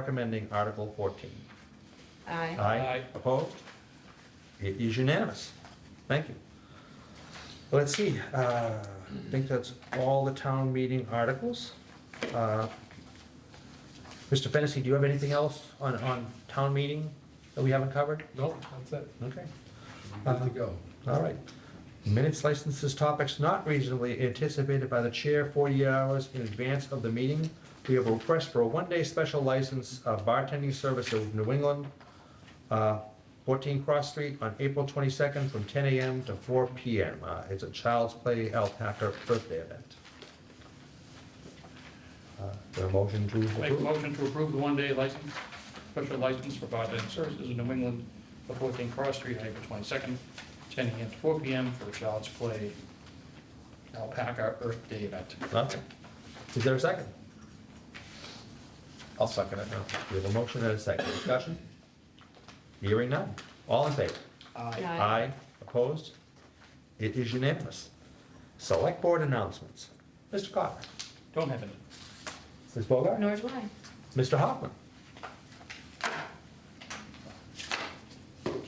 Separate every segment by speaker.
Speaker 1: recommending Article 14.
Speaker 2: Aye.
Speaker 1: Aye.
Speaker 3: Aye.
Speaker 1: Opposed? It is unanimous. Thank you. Let's see, uh, I think that's all the town meeting articles. Uh, Mr. Fennessy, do you have anything else on, on town meeting that we haven't covered?
Speaker 3: No, that's it.
Speaker 1: Okay,
Speaker 3: Good to go.
Speaker 1: all right. Minutes, licenses, topics not reasonably anticipated by the chair 48 hours in advance of the meeting. We have a request for a one-day special license of bartending service of New England, uh, 14 Cross Street on April 22nd from 10 a.m. to 4 p.m. Uh, It's a Child's Play Alpaca birthday event. Uh, The motion to
Speaker 3: Make a
Speaker 1: approve.
Speaker 3: motion to approve the one-day license, special license for bartending services in New England for 14 Cross Street, April 22nd, 10 a.m. to 4 p.m. for a child's play alpaca Earth Day event.
Speaker 1: Okay. Is there a second?
Speaker 4: I'll second it.
Speaker 1: No. We have a motion and a second. Discussion? Hearing none. All in favor?
Speaker 3: Aye.
Speaker 2: Aye.
Speaker 1: Aye, opposed? It is unanimous. Select Board announcements. Mr. Cotter.
Speaker 3: Don't have any.
Speaker 1: Ms. Bogart?
Speaker 2: Nor do I.
Speaker 1: Mr. Hoffman?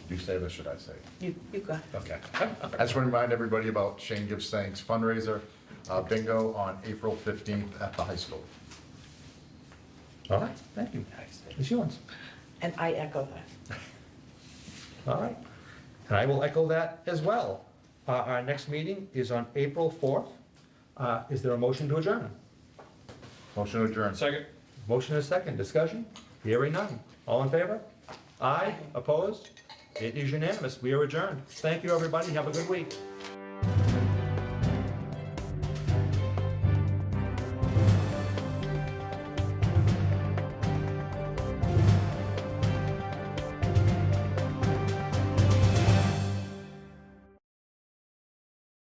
Speaker 4: You say this, should I say? it?
Speaker 2: You, you go.
Speaker 4: Okay. I just want to remind everybody about Shane Gives Thanks fundraiser, uh, bingo on April 15th at the high school.
Speaker 1: All right, thank you. Ms. Ewens?
Speaker 5: And I echo that.
Speaker 1: All right. And I will echo that as well. Uh, Our next meeting is on April 4th. Uh, Is there a motion to adjourn?
Speaker 4: Motion adjourned.
Speaker 3: Second?
Speaker 1: Motion is second. Discussion? Hearing none. All in favor? Aye, opposed? It is unanimous. We are adjourned. Thank you, everybody. Have a good week.